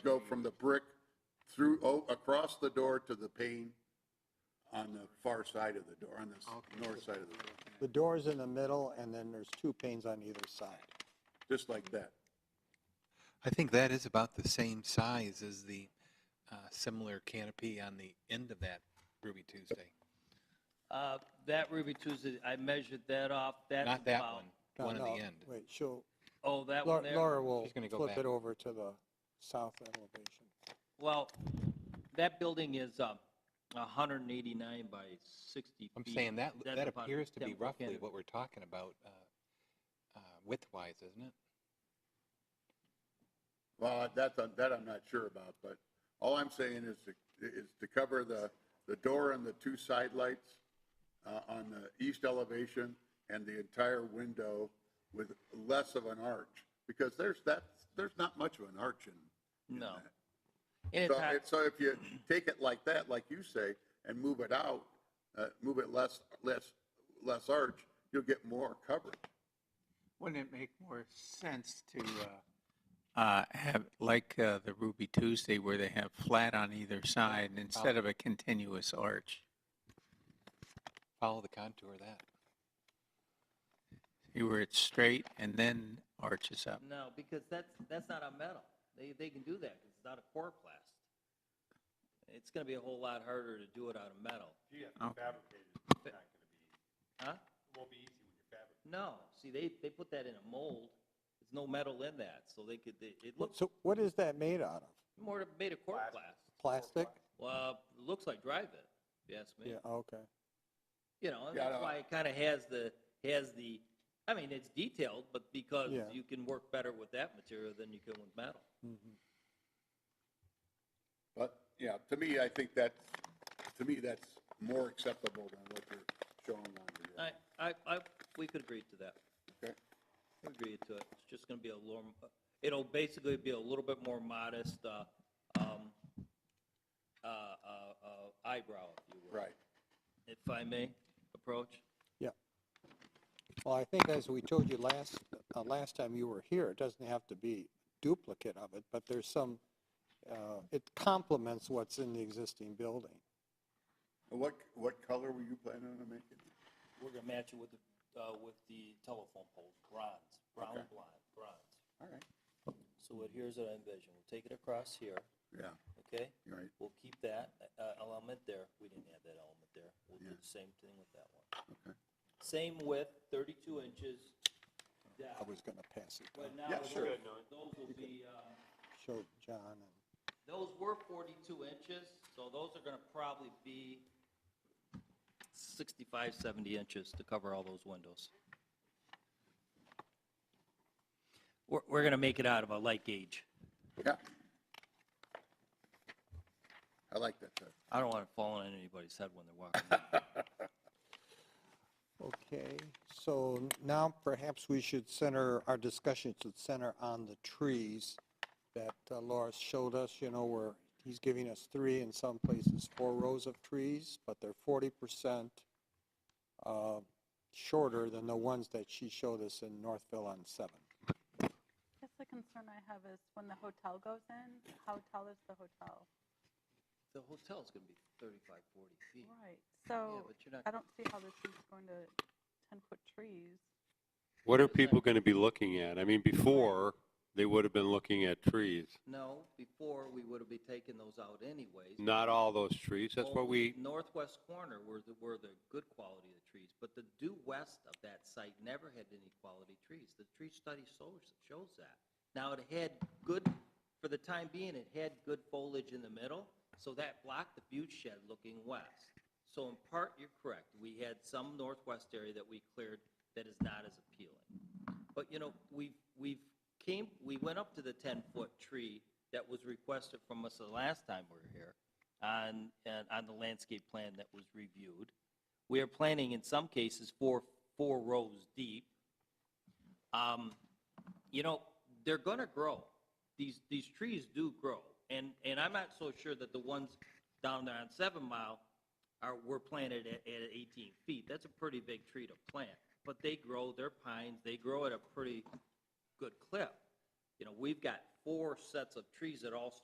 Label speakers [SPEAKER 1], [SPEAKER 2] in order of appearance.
[SPEAKER 1] from the brick through, oh, across the door to the pane on the far side of the door, on the north side of the door,
[SPEAKER 2] The door's in the middle, and then there's two panes on either side.
[SPEAKER 1] just like that.
[SPEAKER 3] I think that is about the same size as the uh, similar canopy on the end of that Ruby Tuesday.
[SPEAKER 4] Uh, That Ruby Tuesday, I measured that off. That
[SPEAKER 3] Not
[SPEAKER 4] was
[SPEAKER 3] that
[SPEAKER 4] about-
[SPEAKER 3] one,
[SPEAKER 2] No,
[SPEAKER 3] one at
[SPEAKER 2] no,
[SPEAKER 3] the end.
[SPEAKER 2] Wait, she'll,
[SPEAKER 4] Oh, that one
[SPEAKER 2] Laura
[SPEAKER 4] there?
[SPEAKER 2] Laura will
[SPEAKER 3] She's gonna go
[SPEAKER 2] flip
[SPEAKER 3] back.
[SPEAKER 2] it over to the south elevation.
[SPEAKER 4] Well, that building is uh, 189 by 60 feet.
[SPEAKER 3] I'm saying that,
[SPEAKER 4] That's
[SPEAKER 3] that
[SPEAKER 4] about
[SPEAKER 3] appears to be
[SPEAKER 4] 10%
[SPEAKER 3] roughly
[SPEAKER 4] of-
[SPEAKER 3] what we're talking about uh, uh, width-wise, isn't it?
[SPEAKER 1] Well, that's, that I'm not sure about, but all I'm saying is to, is to cover the, the door and the two side lights uh, on the east elevation and the entire window with less of an arch, because there's that, there's not much of an arch in. in
[SPEAKER 4] No.
[SPEAKER 1] that.
[SPEAKER 4] And it's
[SPEAKER 1] So,
[SPEAKER 4] hard-
[SPEAKER 1] and so if you take it like that, like you say, and move it out, uh, move it less, less, less arch, you'll get more coverage.
[SPEAKER 5] Wouldn't it make more sense to uh, uh, have, like uh, the Ruby Tuesday, where they have flat on either side instead of a continuous arch?
[SPEAKER 3] Follow the contour of that.
[SPEAKER 5] See where it's straight and then arches up.
[SPEAKER 4] No, because that's, that's not a metal. They, they can do that, 'cause it's not a coroplast. It's gonna be a whole lot harder to do it out of metal.
[SPEAKER 6] You have
[SPEAKER 5] Oh.
[SPEAKER 6] to fabricate it, it's not gonna be,
[SPEAKER 4] Huh?
[SPEAKER 6] it won't be easy when you're fabricating.
[SPEAKER 4] No, see, they, they put that in a mold. There's no metal in that, so they could, they- it looks
[SPEAKER 2] So what is that made out of?
[SPEAKER 4] more made of coroplast.
[SPEAKER 2] Plastic?
[SPEAKER 4] Well, it looks like drive-it, if you ask me.
[SPEAKER 2] Yeah, okay.
[SPEAKER 4] You know, and
[SPEAKER 1] Yeah, I
[SPEAKER 4] that's
[SPEAKER 1] know.
[SPEAKER 4] why it kind of has the, has the, I mean, it's detailed, but because
[SPEAKER 2] Yeah.
[SPEAKER 4] you can work better with that material than you can with metal.
[SPEAKER 2] Mhm.
[SPEAKER 1] But, yeah, to me, I think that's, to me, that's more acceptable than what you're showing on the. uh,
[SPEAKER 4] I, I, I, we could agree to that.
[SPEAKER 1] Okay.
[SPEAKER 4] We Agree to it. It's just gonna be a little, it'll basically be a little bit more modest, uh, um, uh, uh, uh, eyebrow, if you will.
[SPEAKER 1] Right.
[SPEAKER 4] If I may, approach.
[SPEAKER 2] Well, I think as we told you last, uh, last time you were here, it doesn't have to be duplicate of it, but there's some, uh, it complements what's in the existing building.
[SPEAKER 1] And What, what color were you planning on making?
[SPEAKER 4] We're gonna match it with the, uh, with the telephone poles, bronze, brown blonde, bronze.
[SPEAKER 1] All right.
[SPEAKER 4] So what, here's what I envision. We'll take it across here,
[SPEAKER 1] Yeah,
[SPEAKER 4] okay?
[SPEAKER 1] you're right,
[SPEAKER 4] We'll keep that uh, element there. We didn't have that element there. We'll do the same thing with that one.
[SPEAKER 1] Okay.
[SPEAKER 4] Same width, 32 inches
[SPEAKER 2] I
[SPEAKER 4] down.
[SPEAKER 2] was going to pass it
[SPEAKER 4] But
[SPEAKER 2] down,
[SPEAKER 4] now,
[SPEAKER 1] Yeah,
[SPEAKER 4] those
[SPEAKER 1] sure.
[SPEAKER 4] those will be, uh,
[SPEAKER 2] show John and.
[SPEAKER 4] those were 42 inches, so those are going to probably be 65, 70 inches to cover all those windows. We're, we're going to make it out of a light gauge.
[SPEAKER 1] yeah. I like that, uh,
[SPEAKER 4] I don't want it falling on anybody's head when they're walking. in.
[SPEAKER 2] Okay, so n- now perhaps we should center, our discussion should center on the trees that uh, Laura showed us, you know, where he's giving us three, in some places four rows of trees, but they're forty percent uh, shorter than the ones that she showed us in Northville on Seven.
[SPEAKER 7] Just the concern I have is when the hotel goes in, how tall is the hotel?
[SPEAKER 4] The hotel's going to be 35, 40 feet.
[SPEAKER 7] Right,
[SPEAKER 4] Yeah,
[SPEAKER 7] so
[SPEAKER 4] but you're not
[SPEAKER 7] I don't see how this is going to 10-foot trees.
[SPEAKER 8] What are people going to be looking at? I mean, before, they would have been looking at trees.
[SPEAKER 4] No, before, we would have been taking those out anyways.
[SPEAKER 8] Not all those trees. That's what
[SPEAKER 4] Only
[SPEAKER 8] we,
[SPEAKER 4] the Northwest corner were the, were the good quality of the trees, but the due west of that site never had any quality trees. The tree study shows, shows that. Now, it had good, for the time being, it had good foliage in the middle, so that blocked the view shed looking west. So in part, you're correct. We had some northwest area that we cleared that is not as appealing. But, you know, we, we came, we went up to the 10-foot tree that was requested from us the last time we were here on, and on the landscape plan that was reviewed. We are planning in some cases four, four rows deep. Um, You know, they're going to grow. These, these trees do grow. And, and I'm not so sure that the ones down there on Seven Mile are, were planted at, at 18 feet. That's a pretty big tree to plant. But they grow, they're pines, they grow at a pretty good clip. You know, we've got four sets of trees that all start